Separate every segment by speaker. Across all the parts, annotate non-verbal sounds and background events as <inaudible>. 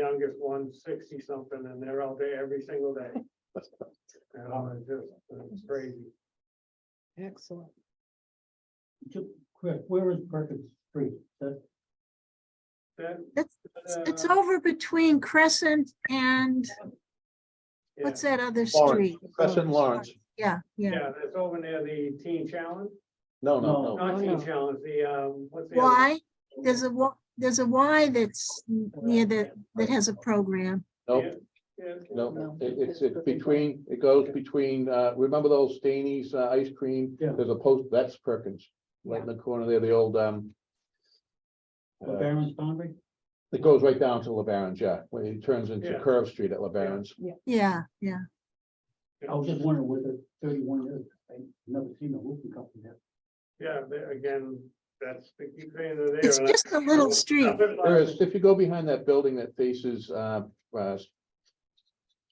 Speaker 1: youngest one sixty something and they're out there every single
Speaker 2: <laughs>
Speaker 1: day. And I'm just, it's crazy.
Speaker 3: Excellent.
Speaker 4: Just quick, where is Perkins Street? That,
Speaker 1: That,
Speaker 3: It's, it's- it's
Speaker 1: uh,
Speaker 3: over between Crescent and
Speaker 1: yeah,
Speaker 3: what's that other
Speaker 2: Lawrence,
Speaker 3: street?
Speaker 5: Oh,
Speaker 2: Crescent Lawrence.
Speaker 3: Yeah, yeah.
Speaker 1: Yeah, that's over near the teen challenge,
Speaker 2: No,
Speaker 4: No.
Speaker 2: no, no.
Speaker 1: not teen
Speaker 3: no.
Speaker 1: challenge, the, um, what's the? other-
Speaker 3: Y, there's a, wa- there's a Y that's n- near the, that has a program.
Speaker 2: Nope,
Speaker 1: Yeah,
Speaker 2: no, It- it's, it's between, it goes between, uh, remember those Staney's uh, ice cream?
Speaker 4: Yeah.
Speaker 2: There's a post, that's Perkins, right in the corner there, the old, um.
Speaker 4: the
Speaker 2: uh,
Speaker 4: Barron's boundary?
Speaker 2: It goes right down to LeBaron's, yeah, when it turns into
Speaker 1: Yeah.
Speaker 2: Curve Street at LeBaron's.
Speaker 3: Yeah, yeah.
Speaker 4: I was just wondering where the thirty-one is. I've never seen a roofing company there.
Speaker 1: Yeah, but again, that's the key thing there.
Speaker 3: It's
Speaker 1: and I-
Speaker 3: just a little street.
Speaker 2: There is, if you go behind that building that faces, uh, uh,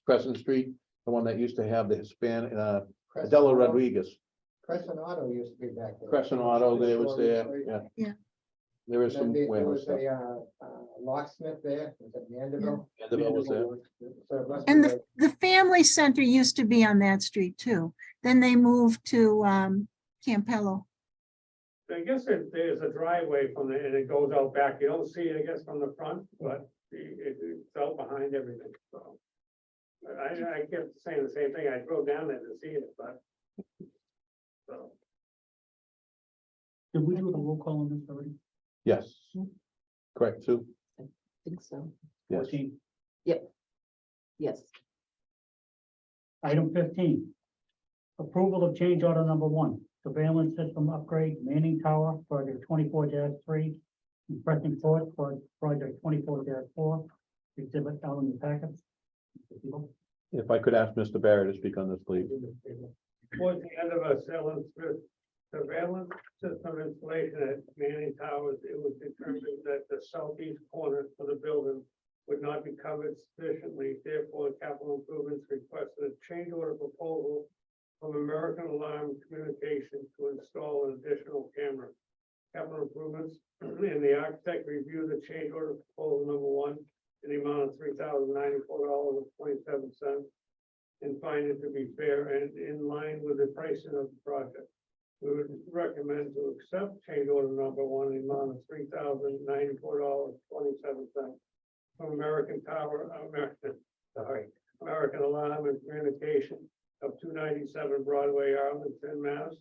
Speaker 2: Crescent Street, the one that used to have the Hispanic, uh, Adela Rodriguez,
Speaker 6: Crescent Auto used to be back there.
Speaker 2: Crescent Auto, there was there,
Speaker 6: Right.
Speaker 2: yeah.
Speaker 3: Yeah.
Speaker 2: There is
Speaker 6: Then
Speaker 2: some
Speaker 6: There there
Speaker 2: warehouse
Speaker 6: was
Speaker 2: stuff.
Speaker 6: a uh, uh, locksmith there, was it Mandeville? uh,
Speaker 2: Vanderbilt was there.
Speaker 6: So it must be
Speaker 3: And
Speaker 6: the-
Speaker 3: the, the family center used to be on that street too. Then they moved to, um, Campello.
Speaker 1: I guess if there's a driveway from there and it goes out back, you don't see it, I guess, from the front, but the- it, it's out behind everything, so. But I, I kept saying the same thing, I drove down there to see it, but. So,
Speaker 4: Did we do a roll call on this already?
Speaker 2: Yes. Correct, Sue?
Speaker 5: think so.
Speaker 2: Yes.
Speaker 4: Fourteen.
Speaker 5: Yes.
Speaker 4: Item fifteen. Approval of change order number one, surveillance system upgrade Manning Tower, project twenty-four three. and Preston Court for project twenty-four four, exhibit out in the packets.
Speaker 2: If I could ask Mr. Barrett to speak on this, please.
Speaker 1: towards the end of a surveillance, surveillance system installation at Manning Towers, it was determined that the southeast corner of the building would not be covered sufficiently, therefore capital improvements requested a change order proposal from American Alarm Communications to install an additional camera. Capital improvements, and the architect reviewed the change order proposal number one in the amount of three thousand ninety-four dollars and twenty-seven cents and find it to be fair and in line with the pricing of the project. We would recommend to accept change order number one in the amount of three thousand ninety-four dollars twenty-seven cents from American Tower, American, sorry, American Alarm and Communication of two ninety-seven Broadway, Arlington, Mass.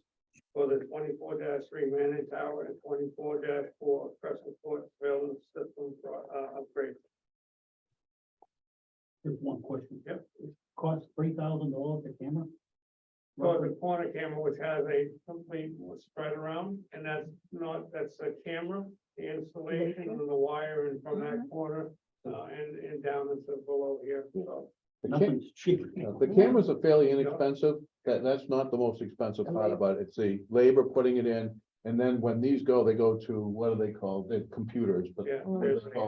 Speaker 1: For the twenty-four three Manning Tower and twenty-four four Crescent Court Surveillance System pro- uh, upgrade.
Speaker 4: Just one question.
Speaker 1: Yep.
Speaker 4: Cost three thousand dollars a camera?
Speaker 1: So the corner camera, which has a complete spread around, and that's not, that's a camera, the installation and the wire and from that corner. Uh, and, and down into below here, so.
Speaker 2: The ca-
Speaker 4: Nothing's cheap.
Speaker 2: you know, The cameras are fairly inexpensive. That, that's not the most expensive part about it. It's the labor putting it in. And then when these go, they go to, what are they called? They're computers, but
Speaker 1: Yeah, there's a, uh,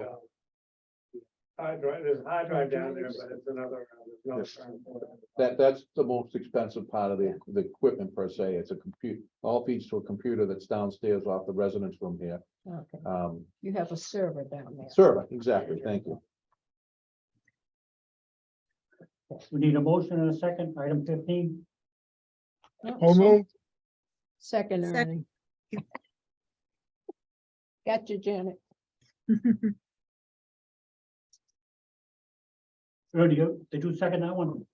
Speaker 1: hard drive, there's a hard drive down there, but it's another. uh, there's no
Speaker 2: Yes.
Speaker 1: current one.
Speaker 2: that, that's the most expensive part of the, the equipment per se. It's a compute, all feeds to a computer that's downstairs off the residence room here.
Speaker 5: Okay.
Speaker 2: Um,
Speaker 5: You have a server down there.
Speaker 2: server, exactly, thank you.
Speaker 4: We need a motion and a second, item fifteen.
Speaker 5: Oh, so- Second,
Speaker 3: Sec-
Speaker 5: Ernie. Got you, Janet.
Speaker 4: Ernie, you- did you second that one?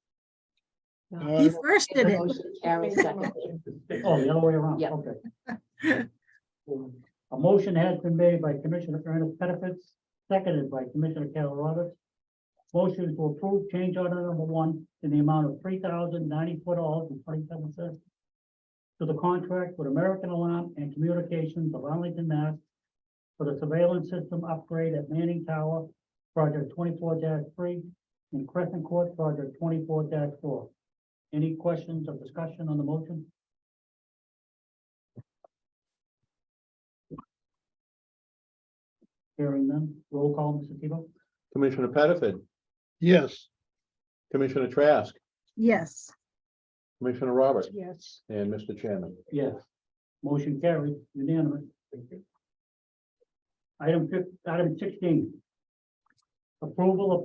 Speaker 5: No.
Speaker 3: He first did it.
Speaker 5: Motion carries second.
Speaker 4: Oh, the other way around,
Speaker 5: Yeah.
Speaker 4: okay. <laughs> A motion has been made by Commissioner Ernest Pettifat, seconded by Commissioner Carol Roberts. Motion to approve change order number one in the amount of three thousand ninety-four dollars and twenty-seven cents to the contract with American Alarm and Communications of Arlington, Mass. for the surveillance system upgrade at Manning Tower, project twenty-four three, and Crescent Court, project twenty-four four. Any questions or discussion on the motion? Hearing none, roll call, Mr. Tebow?
Speaker 2: Commissioner Pettifat,
Speaker 7: Yes,
Speaker 2: Commissioner Trask,
Speaker 3: Yes.
Speaker 2: Commissioner Roberts,
Speaker 5: Yes.
Speaker 2: and Mr. Chairman.
Speaker 4: Yes. Motion carried unanimous. Item fif- item sixteen. Approval of